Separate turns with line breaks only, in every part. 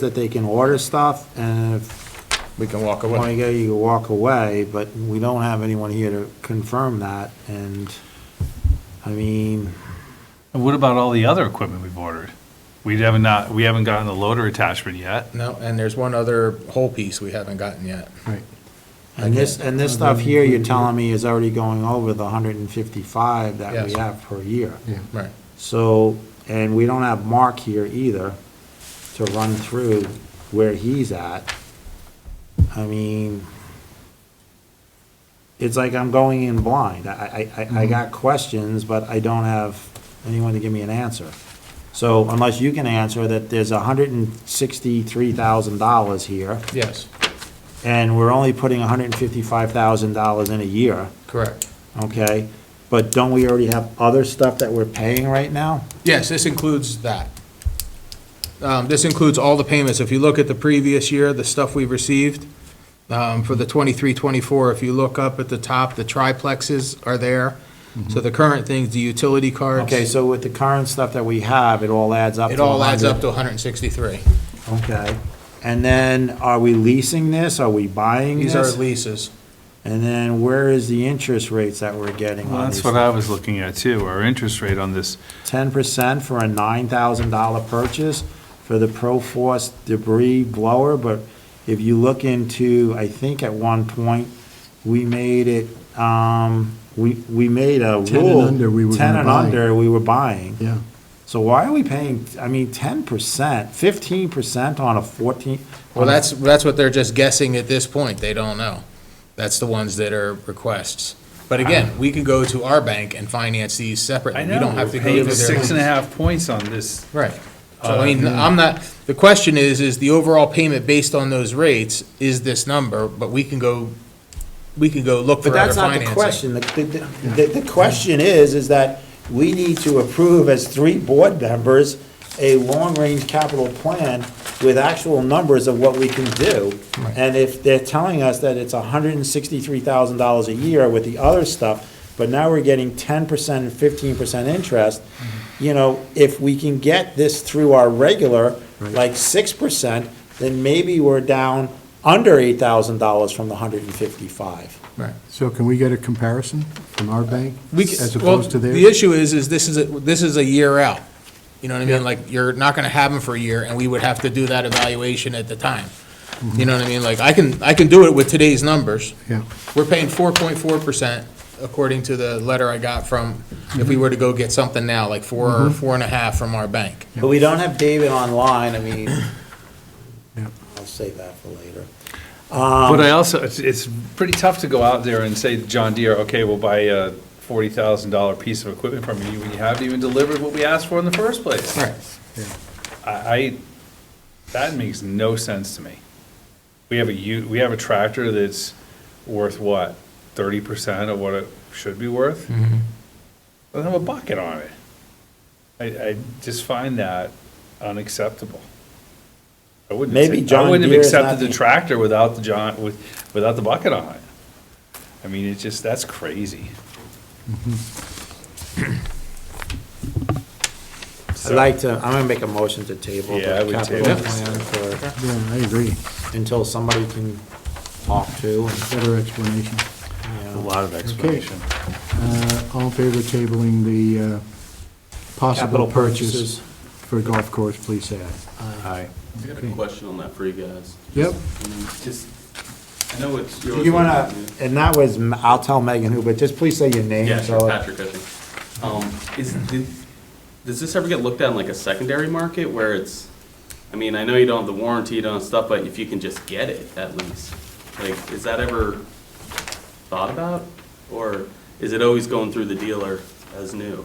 that they can order stuff, and if
We can walk
you want
away.
to go, you can walk away, but we don't have anyone here to confirm that, and, I mean,
And what about all the other equipment we've ordered? We haven't not, we haven't gotten the loader attachment yet.
No, and there's one other whole piece we haven't gotten yet.
and this, and this stuff here, you're telling me is already going over the hundred and fifty-five that we
Yes.
have per year.
Right.
So, and we don't have Mark here either to run through where he's at. I mean, it's like I'm going in blind. I, I, I- I got questions, but I don't have anyone to give me an answer. So unless you can answer that there's hundred and sixty-three thousand dollars here,
Yes,
and we're only putting hundred and fifty-five thousand dollars in a year,
correct.
okay? But don't we already have other stuff that we're paying right now?
Yes, this includes that. Um, This includes all the payments. If you look at the previous year, the stuff we've received um, for the 23, 24, if you look up at the top, the triplexes are there. So the current things, the utility cards.
Okay, so with the current stuff that we have, it all adds up to
It all adds up
100.
to 163.
Okay. And then are we leasing this? Are we buying
These are
this?
leases.
And then where is the interest rates that we're getting
Well,
on these?
that's what I was looking at too, our interest rate on this.
Ten percent for a nine thousand dollar purchase for the Proforce debris blower, but if you look into, I think at one point, we made it, um, we, we made a rule.
10 and under we were
Ten
gonna
and
buy.
under, we were buying.
Yeah,
So why are we paying, I mean, ten percent, fifteen percent on a fourteen?
Well, that's, that's what they're just guessing at this point. They don't know. That's the ones that are requests. But again, we could go to our bank and finance these separately. We don't have to go to their.
Six and a half Uh, hmm. points on this.
Right. So I mean, I'm not, the question is, is the overall payment based on those rates is this number, but we can go, we can go look
But
for other
that's not the
financing.
question. The, the- the, the question is, is that we need to approve as three board members a long-range capital plan with actual numbers of what we can do. And if they're telling us that it's hundred and sixty-three thousand dollars a year with the other stuff, but now we're getting ten percent and fifteen percent interest,
Mm-hmm.
you know, if we can get this through our regular, like six percent, then maybe we're down under eight thousand dollars from the hundred and fifty-five.
Right.
so can we get a comparison from our bank
We c-
as
well,
opposed to
The
theirs?
issue is, is this is, a- this is a year out. You know what I mean? Like, you're not gonna have them for a year, and we would have to do that evaluation at the time. You know what I mean? Like, I can, I can do it with today's numbers.
Mm-hmm. Yeah,
We're paying four point four percent, according to the letter I got from, if
Mm-hmm.
we were to go get something now, like four or four and a half from our bank.
But we don't have David online, I mean,
Yeah.
I'll save that for later.
Um,
But I also, it's, it's pretty tough to go out there and say, John Deere, okay, we'll buy a forty thousand dollar piece of equipment from you when you haven't even delivered what we asked for in the first place. I, I, that makes no sense to me. We have a u, we have a tractor that's worth what, thirty percent of what it should be worth?
Mm-hmm.
Doesn't have a bucket on it. I, I just find that unacceptable. I wouldn't, have
Maybe
ta- I
John
wouldn't have
Deere is not
accepted the
the-
tractor without the John, with, without the bucket on it. I mean, it's just, that's crazy.
Mm-hmm. I'd like to, I'm gonna make a motion to table
Yeah, I
the
would
capital
table.
plan for,
yeah, I agree.
until somebody can talk to, and,
Better explanation.
you
A
know.
lot of explanation.
Uh, All in favor of tabling the uh,
Capital
possible
purchases.
purchase for a golf course, please say aye.
I got a question on that for you guys.
Yep.
Just, I know it's yours.
You wanna, and that was, I'll tell Megan who, but just please say your name,
Yeah, sure,
so.
Patrick, I think. Um, is, did- does this ever get looked at in like a secondary market where it's, I mean, I know you don't have the warranty, you don't have stuff, but if you can just get it at least? Like, is that ever thought about? Or is it always going through the dealer as new?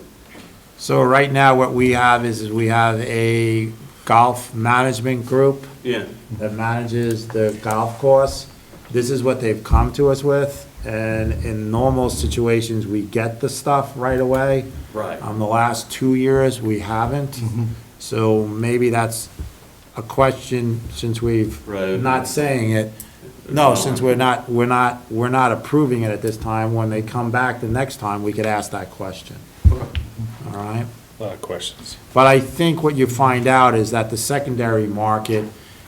So right now, what we have is, is we have a golf management group
Yeah,
that manages the golf course. This is what they've come to us with, and in normal situations, we get the stuff right away.
right.
Um, the last two years, we haven't, so maybe that's a question, since we've
Right.
not saying it. No, since we're not, we're not, we're not approving it at this time, when they come back the next time, we could ask that question,
Okay.
all right?
A Lot of questions.
But I think what you find out is that the secondary market